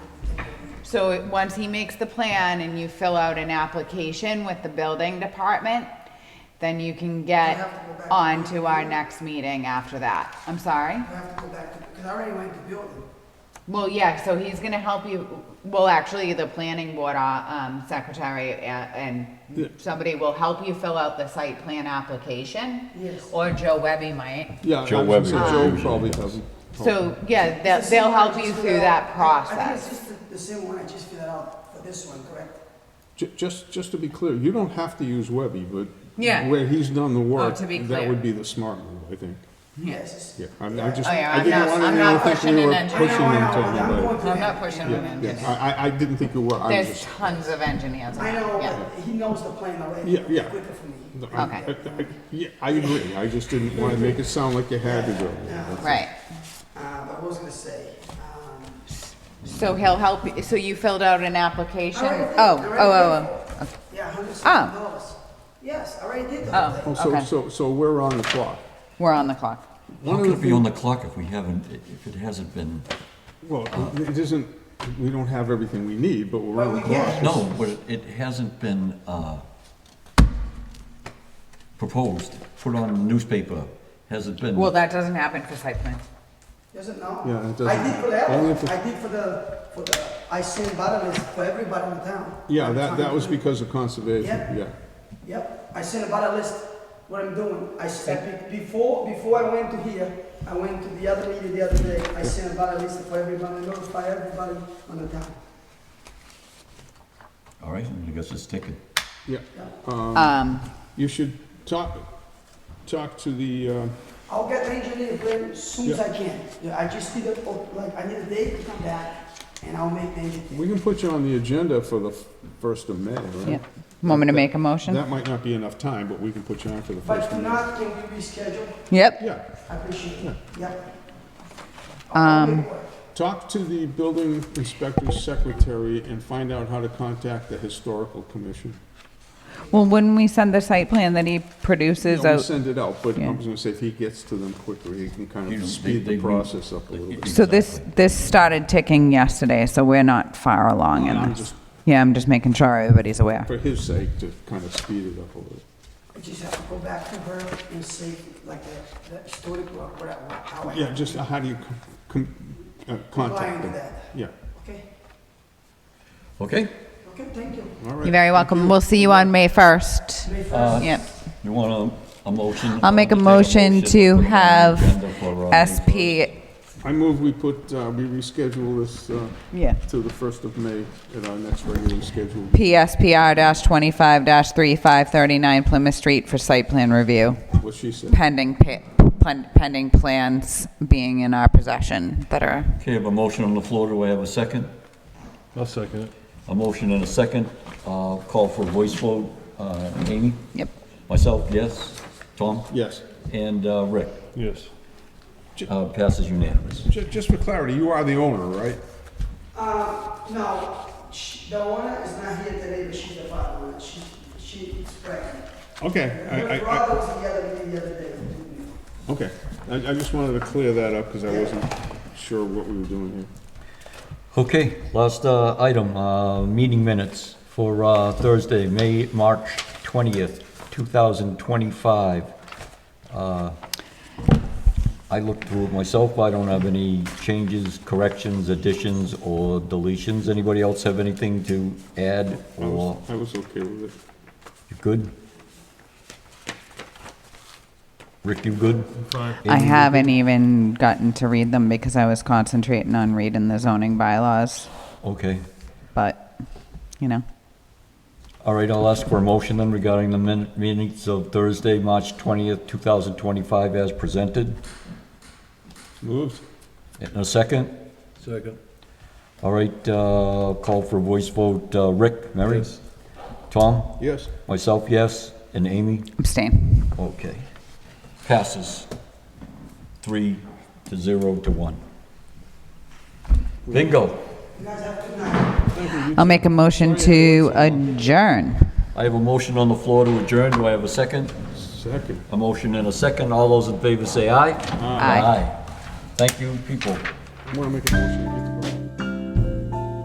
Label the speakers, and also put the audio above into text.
Speaker 1: So it- once he makes the plan and you fill out an application with the building department, then you can get
Speaker 2: have to go back to
Speaker 1: on to our
Speaker 2: the-
Speaker 1: next meeting after that. I'm sorry?
Speaker 2: I have to go back to, because I already went to building.
Speaker 1: Well, yeah, so he's gonna help you, well, actually, the planning board, uh, um, secretary a- and
Speaker 3: Yeah.
Speaker 1: somebody will help you fill out the site plan application.
Speaker 2: Yes.
Speaker 1: Or Joe Webby might.
Speaker 3: Yeah,
Speaker 4: Joe
Speaker 3: I was
Speaker 4: Webby
Speaker 3: gonna say Joe
Speaker 4: usually
Speaker 3: probably
Speaker 4: does.
Speaker 3: doesn't.
Speaker 1: So, yeah, they'll,
Speaker 2: It's the same
Speaker 1: they'll
Speaker 2: one I
Speaker 1: help
Speaker 2: just
Speaker 1: you
Speaker 2: filled
Speaker 1: through that
Speaker 2: out. I- I think it's
Speaker 1: process.
Speaker 2: just the- the same one I just filled out for this one, correct?
Speaker 3: Ju- Just, just to be clear, you don't have to use Webby, but
Speaker 5: Yeah.
Speaker 3: where he's done the
Speaker 1: Oh,
Speaker 3: work,
Speaker 5: to be
Speaker 3: that
Speaker 5: clear.
Speaker 3: would be the smart move, I think.
Speaker 2: Yes.
Speaker 3: Yeah, I'm, I just,
Speaker 1: Oh, yeah,
Speaker 3: I
Speaker 1: I'm
Speaker 3: didn't
Speaker 1: not-
Speaker 3: want
Speaker 1: I'm
Speaker 3: anyone
Speaker 1: not
Speaker 3: to think
Speaker 1: pushing
Speaker 3: we
Speaker 1: an
Speaker 3: were
Speaker 1: agenda.
Speaker 3: pushing
Speaker 2: I know, I
Speaker 3: him to
Speaker 2: know, I'm going
Speaker 3: anybody.
Speaker 2: to
Speaker 1: I'm not
Speaker 2: that.
Speaker 1: pushing
Speaker 2: Yeah.
Speaker 1: him in.
Speaker 3: Yeah, I, I- I didn't think you were, I was
Speaker 1: There's
Speaker 3: just.
Speaker 1: tons of engineers.
Speaker 2: I
Speaker 1: out there,
Speaker 2: know,
Speaker 1: yeah.
Speaker 2: but he knows the plan already.
Speaker 3: Yeah, yeah.
Speaker 2: Quicker for me.
Speaker 3: I-
Speaker 1: Okay.
Speaker 3: I- I- Yeah, I agree, I just didn't wanna make it sound like you had to do it.
Speaker 1: Right,
Speaker 2: Uh, but I was gonna say, um,
Speaker 1: so he'll help, you- so you filled out an application?
Speaker 2: I already did.
Speaker 1: Oh,
Speaker 2: I
Speaker 1: oh,
Speaker 2: already
Speaker 1: oh,
Speaker 2: did.
Speaker 1: oh,
Speaker 2: yeah, a hundred
Speaker 1: Ah.
Speaker 2: something dollars. Yes, I already did the whole
Speaker 1: oh,
Speaker 2: thing.
Speaker 3: Oh,
Speaker 1: okay.
Speaker 3: so, so, so we're on the clock.
Speaker 1: we're on the clock.
Speaker 4: How
Speaker 3: One of
Speaker 4: can
Speaker 3: the
Speaker 4: it be on
Speaker 3: things,
Speaker 4: the clock if we haven't, if it hasn't been,
Speaker 3: well, it isn't, we don't have everything we need, but we're on the
Speaker 2: But we
Speaker 3: clock.
Speaker 2: get-
Speaker 4: no, but it- it hasn't been uh, proposed, put on the newspaper, hasn't been.
Speaker 1: Well, that doesn't happen for site plans.
Speaker 2: Doesn't know?
Speaker 3: Yeah, it
Speaker 2: I
Speaker 3: doesn't-
Speaker 2: did for
Speaker 3: only
Speaker 2: that,
Speaker 3: for-
Speaker 2: I did for the, for the, I sent butter list for everybody in town.
Speaker 3: Yeah,
Speaker 2: I'm
Speaker 3: that,
Speaker 2: trying
Speaker 3: that
Speaker 2: to
Speaker 3: was
Speaker 2: do-
Speaker 3: because of conservation,
Speaker 2: Yeah.
Speaker 3: yeah.
Speaker 2: Yep, I sent about a list what I'm doing. I said, be- before, before I went to here, I went to the other meeting the other day, I sent about a list for everybody, notify everybody on the town.
Speaker 4: All right, I guess it's taken.
Speaker 3: Yeah,
Speaker 1: Um,
Speaker 3: you should talk, talk to the, uh,
Speaker 2: I'll get the engineer plan as soon as
Speaker 3: Yeah.
Speaker 2: I can. Yeah, I just need a, like, I need a day to come back and I'll make the engineer.
Speaker 3: we can put you on the agenda for the f- first of May,
Speaker 1: yeah,
Speaker 3: right?
Speaker 1: want me to make a motion?
Speaker 3: That might not be enough time, but we can put you on for the
Speaker 2: But
Speaker 3: first
Speaker 2: if
Speaker 3: of May.
Speaker 2: not, can we reschedule?
Speaker 1: Yep,
Speaker 3: Yeah,
Speaker 2: I appreciate it. Yep.
Speaker 1: Um,
Speaker 3: talk to the building inspector's secretary and find out how to contact the historical commission.
Speaker 1: well, wouldn't we send the site plan that he produces
Speaker 3: I'll
Speaker 1: out?
Speaker 3: send it out, but I
Speaker 1: Yeah.
Speaker 3: was gonna say, if he gets to them quicker, he can kind
Speaker 4: You know, they-
Speaker 3: of speed
Speaker 4: they
Speaker 3: the
Speaker 4: re-
Speaker 3: process up a little bit.
Speaker 1: So this, this started ticking yesterday, so we're not far along
Speaker 3: I'm
Speaker 1: in this.
Speaker 3: just-
Speaker 1: Yeah, I'm just making sure everybody's aware.
Speaker 3: For his sake, to kind of speed it up a little.
Speaker 2: I just have to go back to her and see, like, the, the story, what, what, how I.
Speaker 3: Yeah, just how do you com- com- uh, contact
Speaker 2: Complying with
Speaker 3: them?
Speaker 2: that.
Speaker 3: Yeah,
Speaker 2: Okay,
Speaker 4: Okay,
Speaker 2: okay, thank you.
Speaker 3: all right.
Speaker 1: You're very welcome. We'll see you on May 1st.
Speaker 2: May first.
Speaker 4: Uh,
Speaker 1: Yep.
Speaker 4: you want a, a motion?
Speaker 1: I'll make a
Speaker 4: Take
Speaker 1: motion
Speaker 4: put it
Speaker 1: to
Speaker 4: on the
Speaker 1: have
Speaker 4: agenda for, uh, May first.
Speaker 1: SP,
Speaker 3: I move we put, uh, we reschedule this uh,
Speaker 1: yeah,
Speaker 3: to the 1st of May at our next regular schedule.
Speaker 1: PSPR-25-3539 Plymouth Street for site plan review,
Speaker 3: What she said.
Speaker 1: pending, pa- pen- pending plans being in our possession that are
Speaker 4: Okay, I have a motion on the floor, do I have a second?
Speaker 6: I'll second it.
Speaker 4: A motion and a second, uh, call for a voice vote, uh, Amy?
Speaker 1: Yep.
Speaker 4: Myself, yes, Tom?
Speaker 3: Yes.
Speaker 4: And, uh, Rick,
Speaker 6: Yes.
Speaker 4: uh, passes unanimous.
Speaker 3: Ju- Just for clarity, you are the owner, right?
Speaker 2: Uh, no, she, the owner is not here today, but she's the father, owner. she, she is pregnant.
Speaker 3: Okay, I-
Speaker 2: Her
Speaker 3: I,
Speaker 2: brother was the other, the other day.
Speaker 3: I, okay. I, I just wanted to clear that up because I wasn't sure what we were doing here.
Speaker 6: Okay.
Speaker 7: Last uh, item, uh, meeting minutes for uh, Thursday, May, March 20th, 2025. Uh, I looked through it myself, I don't have any changes, corrections, additions, or deletions. Anybody else have anything to add,
Speaker 3: I was,
Speaker 7: or
Speaker 3: I was okay with it.
Speaker 7: you good? Rick, you good?
Speaker 1: I
Speaker 7: Amy, you
Speaker 1: haven't even gotten to read them because I was concentrating on reading the zoning bylaws,
Speaker 7: good? Okay.
Speaker 1: but, you know.
Speaker 7: All right, I'll ask for a motion then regarding the min- minutes of Thursday, March 20th, 2025, as presented.
Speaker 3: Moved?
Speaker 7: In a second.
Speaker 6: Second.
Speaker 7: All right, uh, call for voice vote. Uh, Rick, Mary? Tom?
Speaker 3: Yes.
Speaker 7: Myself, yes. And Amy?
Speaker 1: Abstain.
Speaker 7: Okay. Passes. Three to zero to one. Bingo.
Speaker 2: You guys have a good night.
Speaker 1: I'll make a motion to adjourn.
Speaker 7: I have a motion on the floor to adjourn. Do I have a second?
Speaker 3: Second.
Speaker 7: A motion and a second. All those in favor say aye.
Speaker 1: Aye.
Speaker 7: Thank you, people.
Speaker 3: I want to make a motion.